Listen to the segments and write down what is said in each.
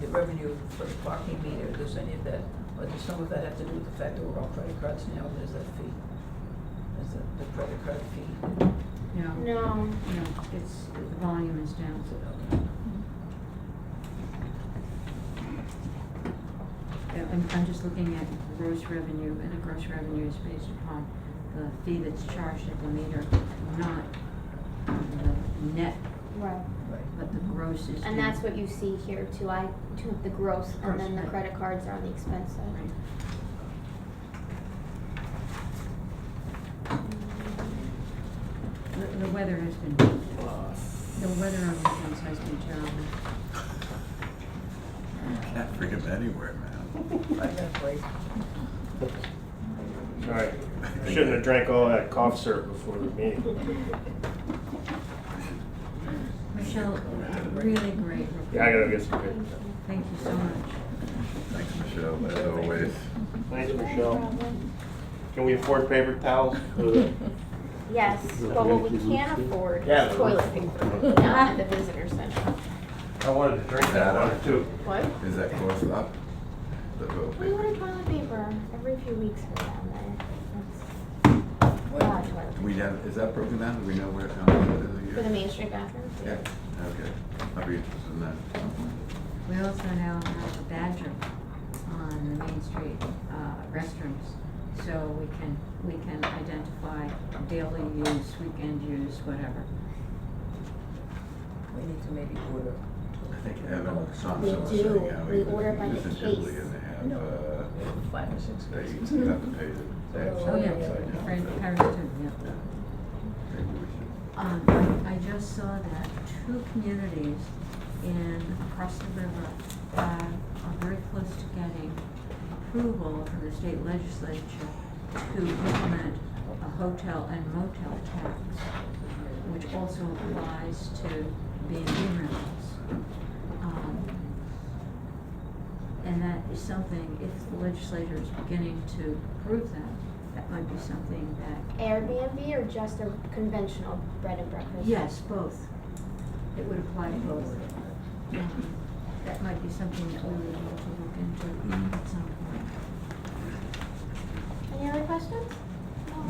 the revenue for the parking meter, does any of that, or does some of that have to do with the fact that we're on credit cards now, there's that fee? There's the, the credit card fee. No. No. No, it's, the volume is down, uh, Okay. Yeah, I'm, I'm just looking at gross revenue, and the gross revenue is based upon the fee that's charged at the meter, not the net, Right. Right. but the gross is. And that's what you see here too, I took the gross and then Gross, the right. credit cards are on the expense side. Right. The, the weather has been, the weather on the fence has been terrible. Can't bring him anywhere, man. I got a break. Sorry, shouldn't have drank all that cough syrup before the meeting. Michelle, really great report. Yeah, I gotta get some good. Thank you so much. Thanks, Michelle, as always. Thanks, Michelle. Can we afford paper towels? Yes, but what we can't afford Yeah. is toilet paper, down at the visitor center. I wanted to drink that one too. What? Is that close up? The vote We order paper. toilet paper every few weeks for down there. That's a lot of toilet We have, is that broken down? Do we know where, how much it is a paper. year? For the Main Street bathrooms? Yeah, okay. I'll be interested in that. We also now have a badger on the Main Street uh, restrooms, so we can, we can identify daily use, weekend use, whatever. We need to maybe order. I think Evan We Thompson was do. saying how he We was order by the just in Italy case. and they have, No. uh, Five or six they cases. you have to pay the, they have Oh, something upside yeah, down, Fran, so- Paris too, yeah. Yeah. Maybe we should. Um, I, I just saw that two communities in, across the river, uh, are very close to getting approval from the state legislature to implement a hotel and motel tax, which also applies to B and B rentals. Um, and that is something, if the legislature is beginning to approve that, that might be something that, Airbnb or just a conventional bread and breakfast? yes, both. It would apply to both. Um, That might be something that we would need to look into Mhm. at some point. Any other questions?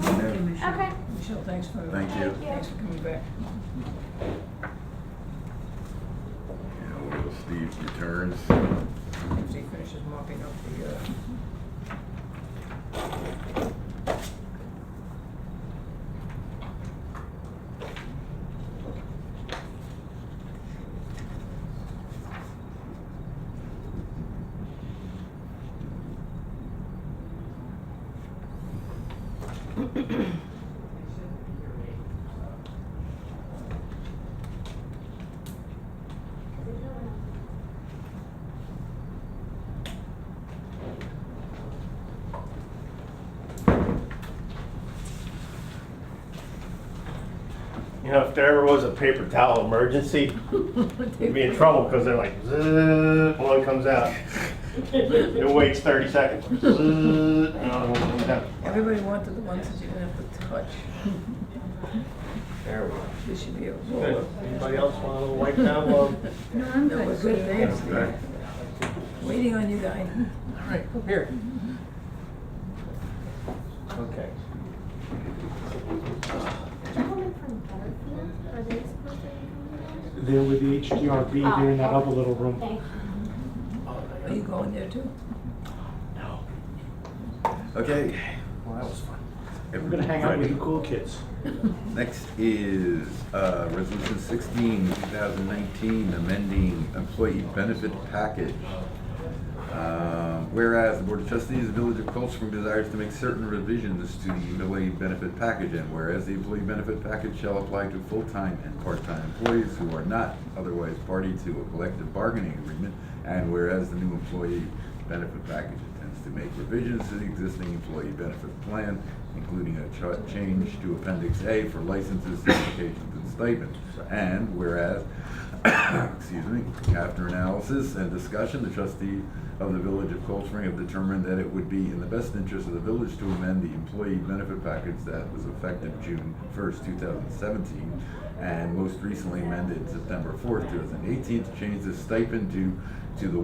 Thank you, Michelle. Okay. Michelle, thanks for. Thank you. Thanks for coming back. Yeah, will Steve returns? If he finishes mopping up the, uh, You know, if there ever was a paper towel emergency, we'd be in trouble because they're like, zzz, one comes out. It waits thirty seconds. Zzz, another one comes out. everybody wanted the ones that you didn't have to touch. There we go. This should be a roll. Good. Anybody else want a little wipe down? Well, No, I'm No, we're good. good, thanks. Okay. Waiting on you guys. all right, come here. Okay. Gentlemen from Butterfield, are they supposed to be They're with the HDRB, they're in that other little room. coming? Okay. Are you going there too? No. Okay. Well, that was fun. I'm gonna hang out with the cool kids. Next is uh, Resolution 16, 2019, amending employee benefit package. Uh, Whereas the Board of Trustees of the Village of Cold Spring desires to make certain revisions to the employee benefit package, and whereas the employee benefit package shall apply to full-time and part-time employees who are not otherwise party to a collective bargaining agreement, and whereas the new employee benefit package intends to make revisions to the existing employee benefit plan, including a cha- change to Appendix A for licenses, certifications, and stipends. And whereas, excuse me, after analysis and discussion, the trustee of the Village of Cold Spring have determined that it would be in the best interest of the village to amend the employee benefit package that was effective June first, two thousand seventeen, and most recently amended September fourth, two thousand eighteen, to change the stipend due to the